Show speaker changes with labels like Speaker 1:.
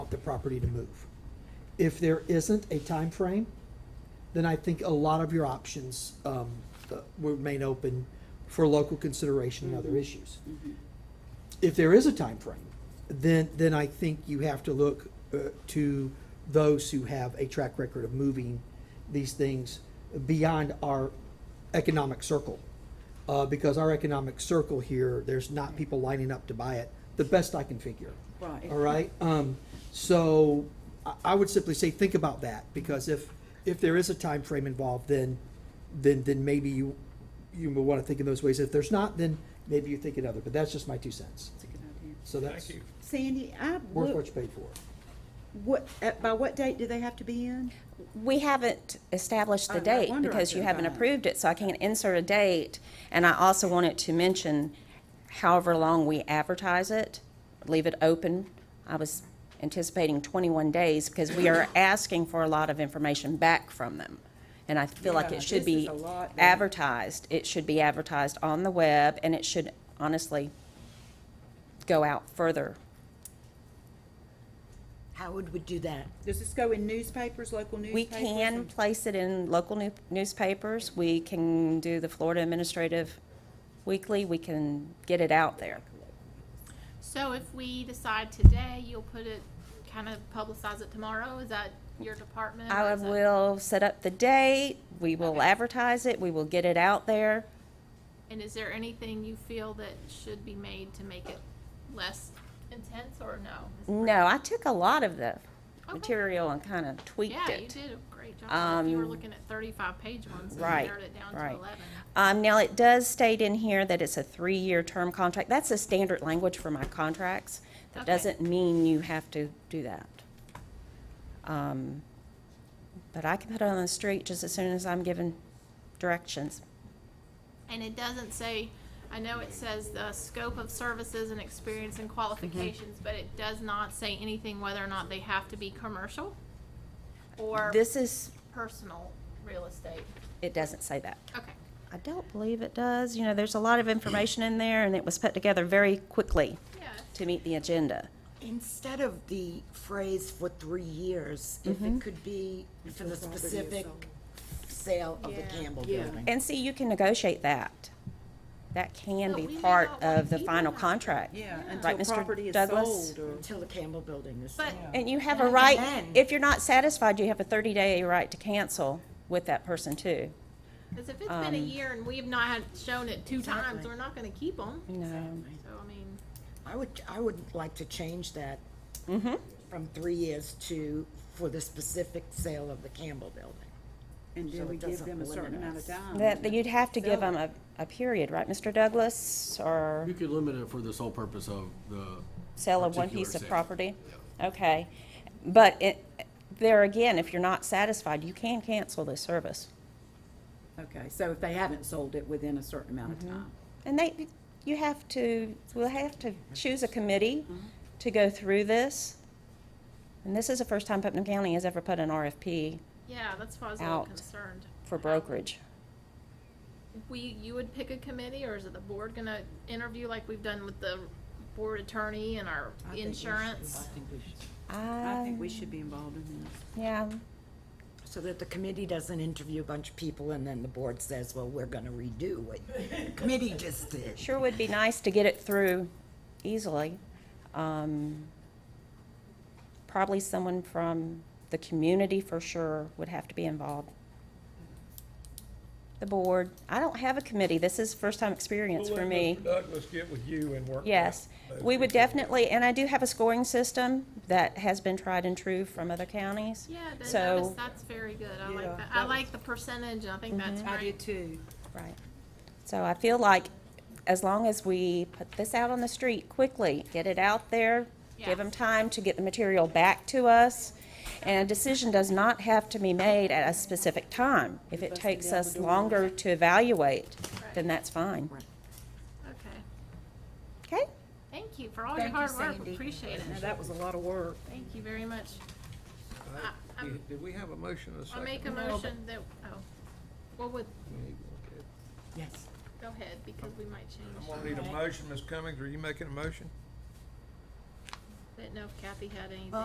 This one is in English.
Speaker 1: property to move. If there isn't a time frame, then I think a lot of your options um, uh, remain open for local consideration and other issues. If there is a time frame, then, then I think you have to look uh, to those who have a track record of moving these things beyond our economic circle. Uh, Because our economic circle here, there's not people lining up to buy it, the best I can figure.
Speaker 2: Right.
Speaker 1: All right, um, so I, I would simply say, think about that, because if, if there is a time frame involved, then, then, then maybe you, you would wanna think in those ways. If there's not, then maybe you think another, but that's just my two cents.
Speaker 2: That's a good idea.
Speaker 1: So that's
Speaker 2: Sandy, I
Speaker 1: worth what
Speaker 2: would,
Speaker 1: you paid for.
Speaker 2: what, uh, by what date do they have to be in?
Speaker 3: We haven't established
Speaker 2: I-
Speaker 3: the
Speaker 2: I
Speaker 3: date
Speaker 2: wonder I
Speaker 3: because you
Speaker 2: couldn't
Speaker 3: haven't
Speaker 2: find it.
Speaker 3: approved it, so I can't insert a date. And I also wanted to mention, however long we advertise it, leave it open. I was anticipating 21 days because we are asking for a lot of information back from them. And I feel like
Speaker 2: Yeah,
Speaker 3: it should
Speaker 2: this is
Speaker 3: be
Speaker 2: a lot, though.
Speaker 3: advertised. It should be advertised on the web, and it should honestly go out further.
Speaker 4: Howard would do that.
Speaker 2: Does this go in newspapers, local
Speaker 3: We
Speaker 2: newspapers?
Speaker 3: can
Speaker 2: and-
Speaker 3: place it in local new- newspapers. We can do the Florida Administrative Weekly. We can get it out there.
Speaker 5: So if we decide today, you'll put it, kind of publicize it tomorrow, is that your department? or
Speaker 3: I
Speaker 5: is that-
Speaker 3: will set up the date. We will
Speaker 5: Okay.
Speaker 3: advertise it. We will get it out there.
Speaker 5: And is there anything you feel that should be made to make it less intense, or no?
Speaker 3: No, I took a lot of the
Speaker 5: Okay.
Speaker 3: material and kind of tweaked
Speaker 5: Yeah, you
Speaker 3: it.
Speaker 5: did a great job, you were
Speaker 3: Um,
Speaker 5: looking at thirty-five page ones, and you
Speaker 3: right,
Speaker 5: narrowed it down to
Speaker 3: right.
Speaker 5: eleven.
Speaker 3: Um, now, it does state in here that it's a three-year term contract. That's the standard language for my contracts. That
Speaker 5: Okay.
Speaker 3: doesn't mean you have to do that. Um, but I can put it on the street just as soon as I'm given directions.
Speaker 5: And it doesn't say, I know it says the scope of services and experience and qualifications, but it does not say anything whether or not they have to be commercial or
Speaker 3: This is,
Speaker 5: personal real estate.
Speaker 3: it doesn't say that.
Speaker 5: Okay.
Speaker 3: I don't believe it does. You know, there's a lot of information in there, and it was put together very quickly
Speaker 5: Yeah, it's-
Speaker 3: to meet the agenda.
Speaker 4: Instead of the phrase for three years, if it could be for the specific sale of the
Speaker 5: Yeah.
Speaker 4: Campbell Building.
Speaker 3: And see, you can negotiate that. That can
Speaker 5: But
Speaker 3: be
Speaker 5: we may
Speaker 3: part
Speaker 5: not want
Speaker 3: of the
Speaker 5: people
Speaker 3: final
Speaker 5: out there.
Speaker 3: contract.
Speaker 2: Yeah,
Speaker 3: Right,
Speaker 2: until
Speaker 3: Mr.
Speaker 2: property is
Speaker 3: Douglas?
Speaker 2: sold or.
Speaker 4: Until the Campbell Building is
Speaker 5: But
Speaker 4: sold.
Speaker 3: And you have a
Speaker 4: And
Speaker 3: right,
Speaker 4: then-
Speaker 3: if you're not satisfied, you have a 30-day right to cancel with that person too.
Speaker 5: Because if it's been a
Speaker 2: Um,
Speaker 5: year and we have not had shown it two times, we're not going to keep them.
Speaker 3: No.
Speaker 5: So I mean,
Speaker 4: I would, I would like to change that Mm-hmm. from three years to for the specific sale of the Campbell Building.
Speaker 2: And
Speaker 4: So
Speaker 2: then we
Speaker 4: it
Speaker 2: give
Speaker 4: doesn't
Speaker 2: them a certain
Speaker 4: limit
Speaker 2: amount of
Speaker 4: us.
Speaker 2: time.
Speaker 3: That, that you'd have to give
Speaker 2: Sell
Speaker 3: them a, a period, right, Mr. Douglas, or
Speaker 6: You could limit it for the sole purpose of the.
Speaker 3: sell of one
Speaker 6: particular
Speaker 3: piece of
Speaker 6: sale.
Speaker 3: property? Okay, but it, there again, if you're not satisfied, you can cancel the service.
Speaker 2: Okay, so if they haven't sold it within a certain amount of time.
Speaker 3: And they, you have to, we'll have to choose a committee
Speaker 2: Mm-hmm.
Speaker 3: to go through this. And this is the first time Putnam County has ever put an RFP
Speaker 5: yeah, that's why I was a little
Speaker 3: Out.
Speaker 5: concerned.
Speaker 3: for brokerage.
Speaker 5: We, you would pick a committee, or is it the board going to interview like we've done with the board attorney and our
Speaker 2: I think we should-
Speaker 5: insurance?
Speaker 2: I think we should- I
Speaker 3: I,
Speaker 2: think we should be involved in this.
Speaker 3: yeah,
Speaker 4: So that the committee doesn't interview a bunch of people and then the board says, well, we're gonna redo what the committee just did.
Speaker 3: sure would be nice to get it through easily. Um, Probably someone from the community for sure would have to be involved. The board, I don't have a committee, this is first time experience
Speaker 7: We'll
Speaker 3: for
Speaker 7: let
Speaker 3: me.
Speaker 7: Mr. Douglas get with you and work. that
Speaker 3: Yes,
Speaker 7: out.
Speaker 3: we would definitely, and I do have a scoring system that has been tried and true from other counties.
Speaker 5: Yeah, then
Speaker 3: So-
Speaker 5: notice that's very good. I
Speaker 2: Yeah,
Speaker 5: like that. I
Speaker 2: that Mm-hmm.
Speaker 5: like the percentage. I think that's
Speaker 2: I do
Speaker 5: great.
Speaker 2: too.
Speaker 3: Right. So I feel like as long as we put this out on the street quickly, get it out there,
Speaker 5: Yeah.
Speaker 3: give them time to get the material back to us, and a decision does not have to be made at a specific time. If it takes us longer to evaluate, then that's fine.
Speaker 5: Okay.
Speaker 3: Okay?
Speaker 5: Thank you for all your hard work. Appreciate
Speaker 2: Now,
Speaker 5: it.
Speaker 2: that was a lot of work.
Speaker 5: Thank you very much.
Speaker 7: Uh, Did did we have a motion and a
Speaker 5: I
Speaker 7: second?
Speaker 5: make a motion that, oh, what would,
Speaker 7: Okay.
Speaker 4: Yes.
Speaker 5: go ahead, because we might
Speaker 7: I'm
Speaker 5: change.
Speaker 7: gonna need a motion, Ms. Cummings, are you making a motion?
Speaker 5: Didn't know if Kathy had anything.